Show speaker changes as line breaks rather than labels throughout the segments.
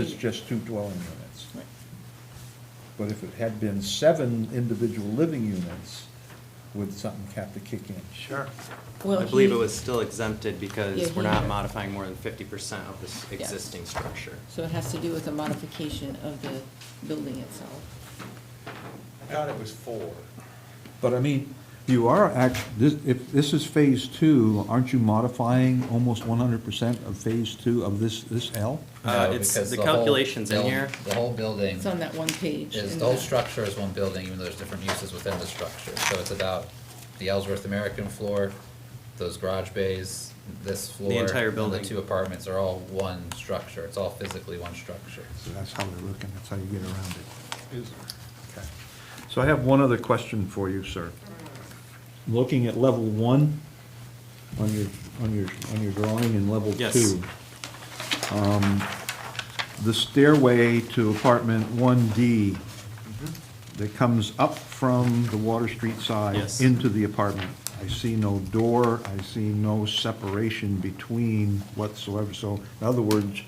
It's just two dwelling units. But if it had been seven individual living units, would something have to kick in?
Sure.
Well,
I believe
he-
it was still exempted
Yeah,
because
he-
we're not modifying more than fifty percent of this
Yeah.
existing structure.
So it has to do with the modification of the building itself.
I thought it was four.
But I mean, you are act, this, if this is phase two, aren't you modifying almost one hundred percent of phase two of this, this L?
Uh,
No,
it's,
because
the
whole
calculation's in
buil-
here.
The whole building
It's on that one page.
is,
in
the whole structure is one building, even though there's different uses within the structure. So it's about the Ellsworth American floor, those garage bays, this floor.
entire
and
building.
The two apartments are all one structure. It's all physically one structure.
That's how they're looking, that's how you get around it. Okay. So I have one other question for you, sir. Looking at level one on your, on your, on your drawing and level
Yes.
two. um, The stairway to apartment one D that comes up from the Water Street side.
Yes.
Into the apartment. I see no door, I see no separation between whatsoever. So in other words,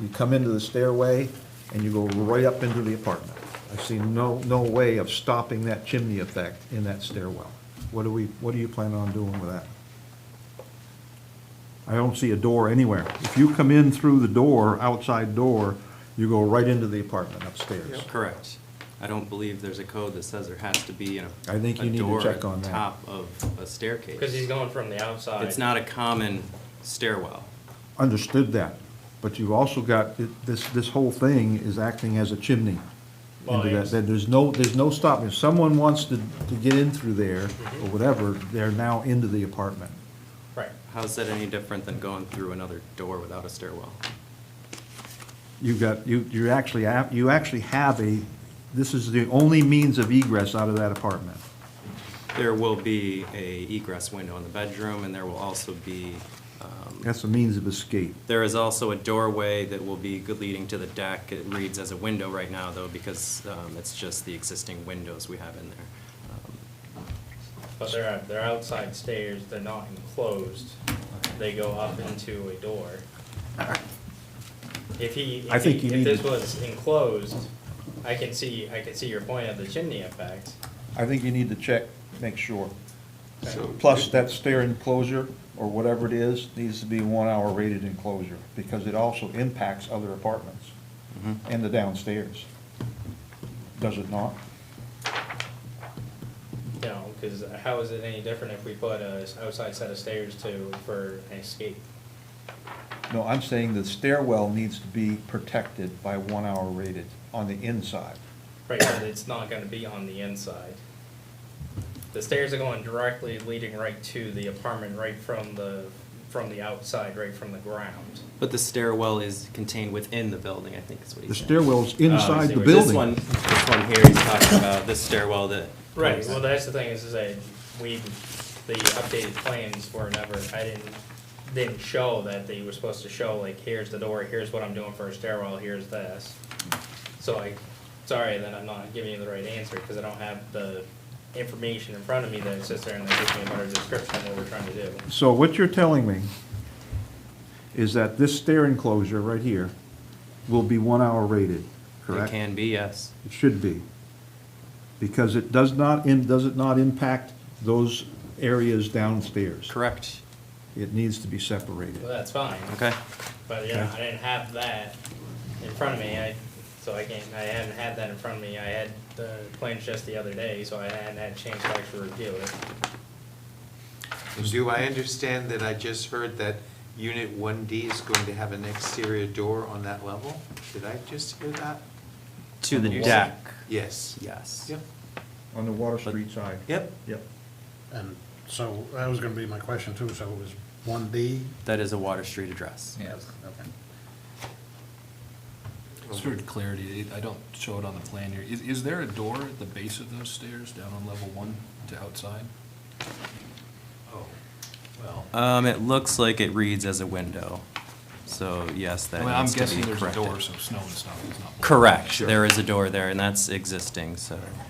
you come into the stairway and you go right up into the apartment. I see no, no way of stopping that chimney effect in that stairwell. What do we, what do you plan on doing with that? I don't see a door anywhere. If you come in through the door, outside door, you go right into the apartment upstairs.
Correct. I don't believe there's a code that says there has to be a,
I think you
a
need to
door
check
at
on
the
that.
top of a staircase.
Because he's going from the outside.
It's not a common stairwell.
Understood that, but you've also got, it- this, this whole thing is acting as a chimney.
Well,
into that.
yes.
That There's no, there's no stopping. If someone wants to, to get in through there or
Mm-hmm.
whatever, they're now into the apartment.
Right.
How's that any different than going through another door without a stairwell?
You've got, you, you're actually, a- you actually have a, this is the only means of egress out of that apartment.
There will be a egress window in the bedroom, and there will also be, um,
That's a means of escape.
There is also a doorway that will be good leading to the deck. It reads as a window right now, though, because um, it's just the existing windows we have in there. Um,
But they're, they're outside stairs, they're not enclosed, they go up into a door. If he,
I
if
think
he-
you
if
need-
this was enclosed, I can see, I can see your point of the chimney effect.
I think you need to check, make sure.
So-
Plus, that stair enclosure, or whatever it is, needs to be a one-hour rated enclosure, because it also impacts other apartments
Mm-hmm.
and the downstairs. Does it not?
You know, because how is it any different if we put a s- outside set of stairs to, for an escape?
No, I'm saying the stairwell needs to be protected by one-hour rated on the inside.
Right, but it's not gonna be on the inside. The stairs are going directly leading right to the apartment, right from the, from the outside, right from the ground.
But the stairwell is contained within the building, I think is what
The
he's saying.
stairwell's
Oh, I
inside
see
the
what you're-
building.
This one, this one here, he's talking about this stairwell that.
Right, well, that's the thing, is, is that we, the updated plans were never, I didn't, didn't show that they were supposed to show, like, here's the door, here's what I'm doing for a stairwell, here's this. So I, sorry that I'm not giving you the right answer, because I don't have the information in front of me that sits there and that gives me a better description of what we're trying to do.
So what you're telling me is that this stair enclosure right here will be one-hour rated,
It
correct?
can be, yes.
It should be. Because it does not, im- does it not impact those areas downstairs?
Correct.
It needs to be separated.
Well, that's fine.
Okay.
But yeah, I didn't have that in front of me. I so I can't. I hadn't had that in front of me. I had the plans just the other day, so I hadn't had a chance to actually review it.
Do I understand that I just heard that unit one D is going to have an exterior door on that level? Did I just hear that?
To the
Yes.
deck,
Yes.
yes.
Yep,
On the Water Street side.
yep.
Yep.
And so that was gonna be my question too, so it was one D?
That is a Water Street address.
Yes, okay.
Sort of clarity, it- I don't show it on the plan here. Is, is there a door at the base of those stairs down on level one to outside?
Oh, well.
Um, it looks like it reads as a window, so yes, that
I mean, I'm
needs to be
guessing
corrected.
there's a door, so snow and stuff is not. blocking it.
Correct, there is a door there, and that's existing, so.